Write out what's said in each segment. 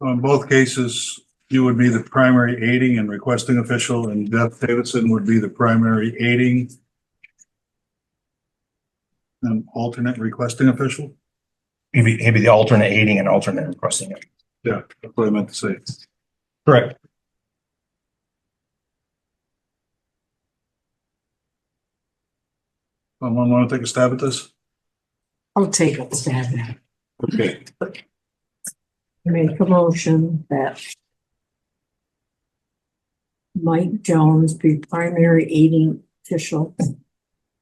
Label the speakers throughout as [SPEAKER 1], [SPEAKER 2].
[SPEAKER 1] On both cases, you would be the primary aiding and requesting official and Beth Davidson would be the primary aiding and alternate requesting official.
[SPEAKER 2] He'd be, he'd be the alternate aiding and alternate requesting it.
[SPEAKER 1] Yeah, that's what I meant to say.
[SPEAKER 2] Correct.
[SPEAKER 1] Someone want to take a stab at this?
[SPEAKER 3] I'll take a stab at it.
[SPEAKER 1] Okay.
[SPEAKER 3] Make a motion that Mike Jones be primary aiding official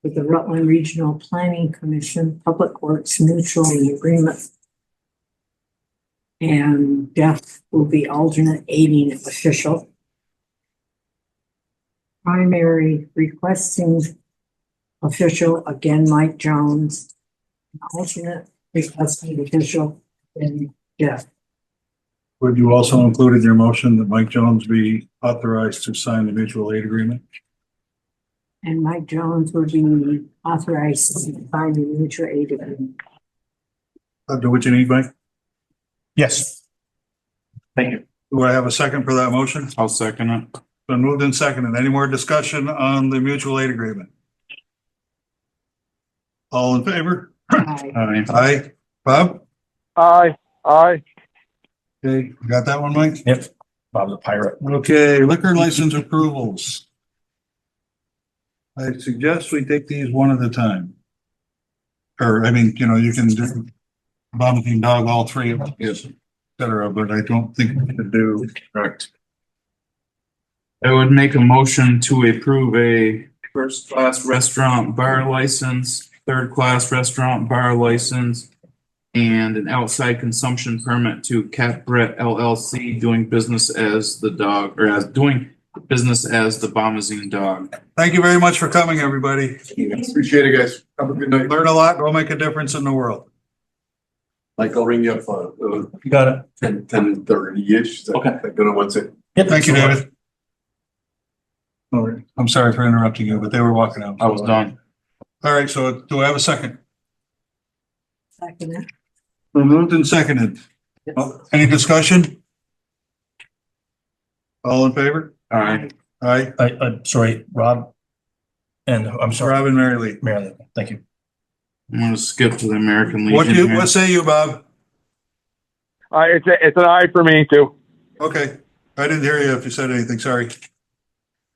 [SPEAKER 3] with the Rutland Regional Planning Commission, Public Works Mutual and Agreement. And Beth will be alternate aiding official. Primary requesting official, again, Mike Jones. Alternate requesting official, and Jeff.
[SPEAKER 1] Would you also include in your motion that Mike Jones be authorized to sign the mutual aid agreement?
[SPEAKER 3] And Mike Jones would be authorized to sign the mutual aid agreement.
[SPEAKER 1] I'll Uh, do what you need, Mike.
[SPEAKER 2] Yes. Thank you.
[SPEAKER 1] Do I have a second for that motion?
[SPEAKER 4] I'll second it.
[SPEAKER 1] Been moved and seconded. Any more discussion on the mutual aid agreement? All in favor?
[SPEAKER 3] Aye.
[SPEAKER 4] Aye.
[SPEAKER 1] Aye. Bob?
[SPEAKER 5] Aye, aye,
[SPEAKER 1] Okay, you got that one, Mike?
[SPEAKER 2] Yep. Bob's a pirate.
[SPEAKER 1] Okay, liquor license approvals. I suggest we take these one at a time. Or, I mean, you know, you can do vomiting dog, all three of them, yes, et cetera, but I don't think we should do.
[SPEAKER 4] Correct. I would make a motion to approve a first class restaurant bar license, third class restaurant bar license. And an outside consumption permit to Cat Brett LLC doing business as the dog or as doing business as the Bombazine Dog.
[SPEAKER 1] Thank you very much for coming, everybody.
[SPEAKER 6] Appreciate it, guys. Have a good night.
[SPEAKER 1] Learn a lot, go make a difference in the world.
[SPEAKER 6] Mike, I'll ring you up, uh,
[SPEAKER 2] You got it.
[SPEAKER 6] ten, ten thirty-ish.
[SPEAKER 2] Okay.
[SPEAKER 6] I'm gonna want to.
[SPEAKER 2] Yep.
[SPEAKER 1] Thank you, David. All right, I'm sorry for interrupting you, but they were walking out.
[SPEAKER 4] I was done.
[SPEAKER 1] All right, so do I have a second?
[SPEAKER 3] Second.
[SPEAKER 1] Been Moved and seconded. Oh, Any discussion? All in favor?
[SPEAKER 4] Aye.
[SPEAKER 1] Aye.
[SPEAKER 2] I, I, sorry, Rob. And I'm sorry,
[SPEAKER 1] Robin Mary Lee.
[SPEAKER 2] Marilyn. Thank you.
[SPEAKER 4] I'm gonna skip to the American Legion.
[SPEAKER 1] What do you,
[SPEAKER 4] here.
[SPEAKER 1] what say you, Bob?
[SPEAKER 5] aye. Uh, It's a, it's an aye for me too.
[SPEAKER 1] Okay, I didn't hear you if you said anything, sorry.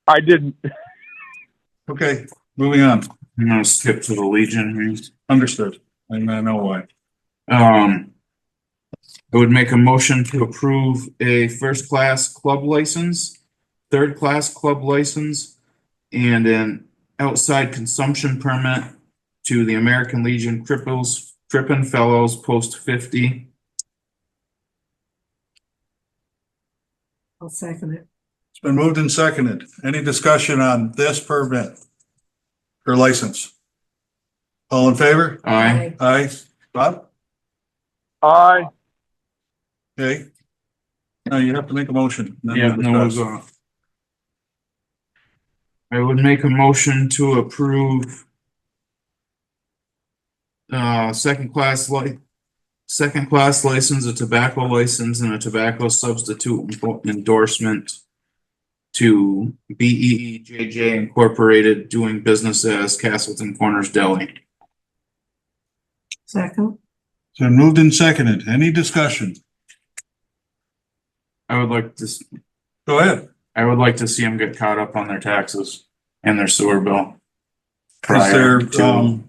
[SPEAKER 5] I didn't.
[SPEAKER 1] Okay, moving on.
[SPEAKER 4] I'm gonna skip to the Legion. here.
[SPEAKER 1] Understood. And I know why.
[SPEAKER 4] Um, I would make a motion to approve a first-class club license, third-class club license, and an outside consumption permit to the American Legion Cripples, Crippen Fellows Post fifty.
[SPEAKER 3] I'll second it.
[SPEAKER 1] It's been moved and seconded. Any discussion on this permit? Or license? All in favor?
[SPEAKER 4] Aye.
[SPEAKER 1] Aye. Bob?
[SPEAKER 5] Aye,
[SPEAKER 1] Okay. Now you have to make a motion. Then
[SPEAKER 4] Yeah,
[SPEAKER 1] we'll
[SPEAKER 4] no, it was
[SPEAKER 1] discuss.
[SPEAKER 4] off. I would make a motion to approve uh, second class li- second class license, a tobacco license and a tobacco substitute enfor- endorsement to B E E J J Incorporated doing business as Castleton Corners Deli.
[SPEAKER 3] Second.
[SPEAKER 1] So moved and seconded. Any discussion?
[SPEAKER 4] I would like to, s-
[SPEAKER 1] Go ahead.
[SPEAKER 4] I would like to see them get caught up on their taxes and their sewer bill.
[SPEAKER 1] Is
[SPEAKER 4] prior
[SPEAKER 1] there,
[SPEAKER 4] to-
[SPEAKER 1] um,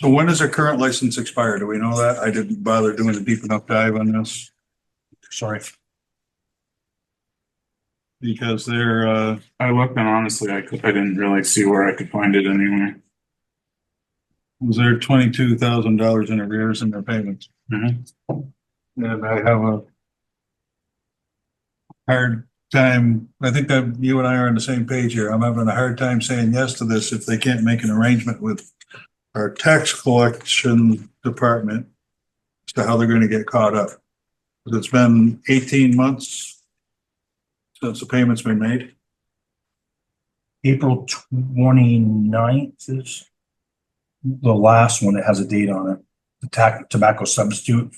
[SPEAKER 1] so when does their current license expire? Do we know that? I didn't bother doing a deep enough dive on this
[SPEAKER 2] Sorry.
[SPEAKER 1] because they're, uh,
[SPEAKER 4] I looked and honestly, I could, I didn't really see where I could find it anywhere.
[SPEAKER 1] was there twenty-two thousand dollars in arrears in their payments?
[SPEAKER 4] Mhm.
[SPEAKER 1] And I have a hard time, I think that you and I are on the same page here. I'm having a hard time saying yes to this if they can't make an arrangement with our tax collection department as to how they're gonna get caught up. 'Cause It's been eighteen months since the payment's been made.
[SPEAKER 2] April twenty-ninth is the last one that has a date on it. The tac- tobacco substitute